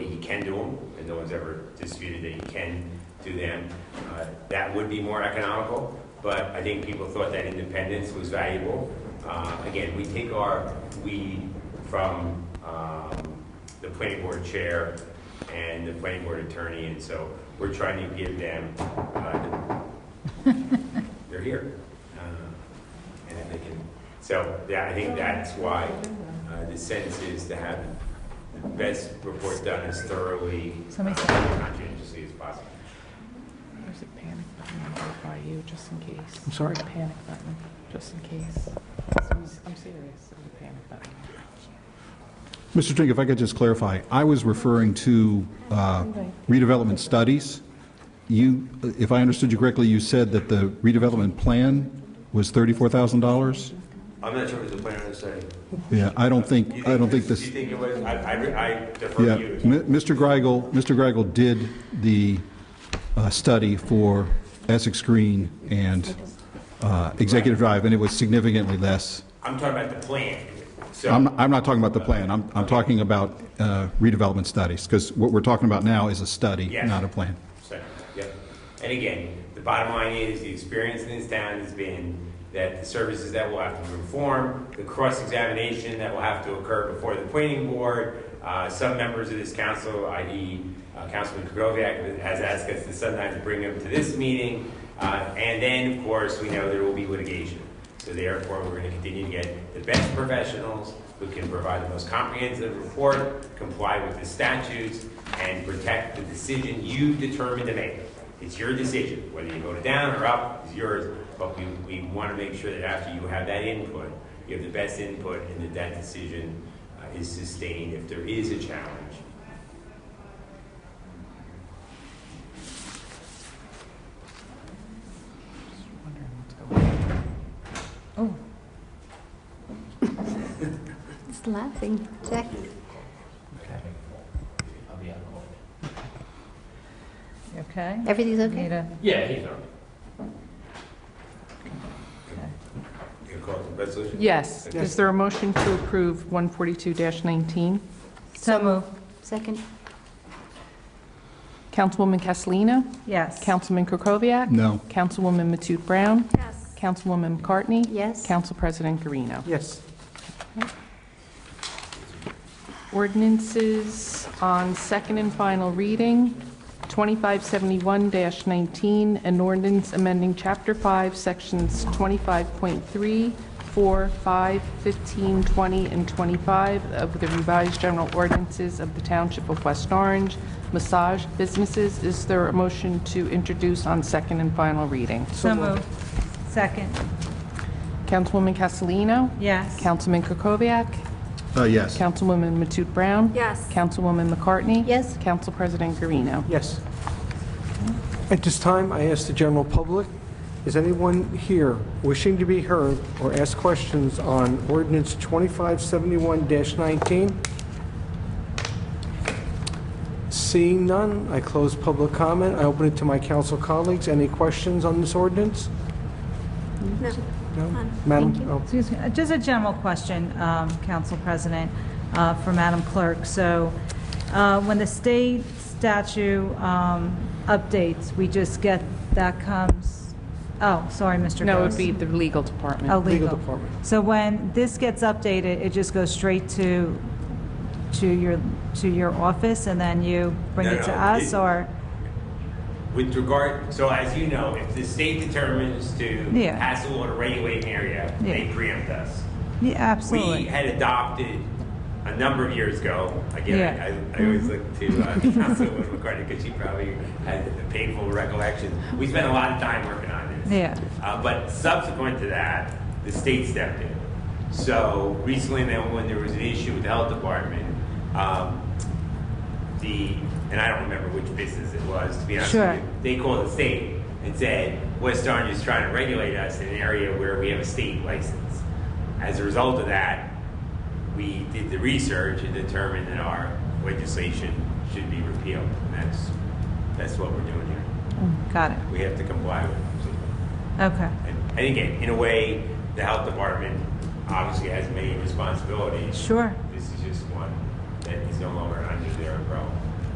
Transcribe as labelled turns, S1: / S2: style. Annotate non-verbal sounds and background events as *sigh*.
S1: and no one's ever disputed that you can do them. Uh, That would be more economical, but I think people thought that independence was valuable. Uh, Again, we take our lead from um, the planning board chair and the planning board attorney, and so we're trying to give them, uh, they're here. Uh, And if they can, so, yeah, I think that's why uh, the sense is to have the best report done as thoroughly,
S2: Somebody said-
S1: uh, conscientiously as possible.
S2: There's a panic button by you, just in case.
S3: I'm sorry?
S2: There's a panic button, just in case. I'm serious, there's a panic button.
S3: Mr. Trink, if I could just clarify, I was referring to uh, redevelopment studies. You, if I understood you correctly, you said that the redevelopment plan was $34,000?
S1: I'm not sure what the planner is saying.
S3: Yeah, I don't think, I don't think
S1: You
S3: this,
S1: think it was, I, I- I defer
S3: yeah.
S1: to you.
S3: M- Mr. Greigel, Mr. Greigel did the uh, study for Essex Green and uh, Executive Drive, and it was significantly less.
S1: I'm talking about the plan, so.
S3: I'm, I'm not talking about the plan, I'm, I'm talking about uh, redevelopment studies, because what we're talking about now is a study,
S1: Yes.
S3: not a plan.
S1: So, Yep. And again, the bottom line is, the experience in this town has been that the services that will have to perform, the cross-examination that will have to occur before the planning board, uh, some members of this council, i.e. uh, Councilman Kukoviac, has asked us to sometimes bring them to this meeting, uh, and then, of course, we know there will be litigation. So therefore, we're going to continue to get the best professionals who can provide the most comprehensive report, comply with the statutes, and protect the decision you determine to make. It's your decision, whether you vote it down or up, is yours, but we, we want to make sure that after you have that input, you have the best input and that that decision uh, is sustained if there is a challenge.
S2: Just wondering what's going on.
S4: It's laughing. Jack,
S5: I'll be out of order.
S2: Oh, okay.
S4: everything's
S2: Need
S4: okay?
S2: a-
S5: Yeah, he's all right.
S2: okay.
S1: You gonna call it the resolution?
S6: Yes. Is there a motion to approve 142-19?
S2: So move.
S4: Second?
S6: Councilwoman Castellino?
S2: Yes.
S6: Councilman Krokoviac?
S3: No.
S6: Councilwoman Matute Brown?
S4: Yes.
S6: Councilwoman McCartney?
S4: Yes.
S6: Council President Garino.
S5: Yes.
S6: Ordinances on second and final reading, 2571-19, an ordinance amending Chapter 5, Sections 25.3, 4, 5, 15, 20, and 25 of the revised general ordinances of the Township of West Orange, massage businesses. Is there a motion to introduce on second and final reading?
S2: So move. Second.
S6: Councilwoman Castellino?
S2: Yes.
S6: Councilman Kukoviac?
S3: Uh, yes.
S6: Councilwoman Matute Brown?
S4: Yes.
S6: Councilwoman McCartney?
S4: Yes.
S6: Council President Garino.
S7: Yes. At this time, I ask the general public, is anyone here wishing to be heard or ask questions on ordinance 2571-19? Seeing none, I close public comment. I open it to my council colleagues. Any questions on this ordinance?
S4: No.
S7: No?
S4: None.
S7: Madam?
S4: Thank you.
S7: oh,
S8: Excuse me, uh, just a general question, um, Council President, uh, for Madam Clerk. So uh, when the state statute um, updates, we just get, that comes, oh, sorry, Mr.
S6: No, it
S8: Gross.
S6: would be the legal
S8: Oh,
S6: department.
S8: legal.
S7: department.
S8: So when this gets updated, it just goes straight to, to your, to your office, and then you bring
S1: No,
S8: it to
S1: no,
S8: us,
S1: it-
S8: or?
S1: With regard, so as you know, if the state determines to
S8: Yeah.
S1: pass a law to regulate an area, they
S8: Yeah.
S1: preempt us.
S8: Yeah,
S1: We
S8: absolutely.
S1: had adopted a number of years ago, again,
S8: Yeah. Mm-hmm.
S1: I- I, I always look to uh, *laughs* Councilwoman McCartney because she probably had a painful recollection. We spent a lot of time working on this.
S8: Yeah.
S1: Uh, but subsequent to that, the state stepped in. So recently, then, when there was an issue with the health department, um, the, and I don't remember which business it was, to be honest
S8: Sure.
S1: with you, they called the state and said, West Orange is trying to regulate us in an area where we have a state license. As a result of that, we did the research and determined that our legislation should be repealed. And that's, that's what we're doing here.
S8: Got it,
S1: We have to comply with it.
S8: okay.
S1: And and again, in a way, the health department obviously has many responsibilities.
S8: Sure,
S1: This is just one that is no longer under their umbrella.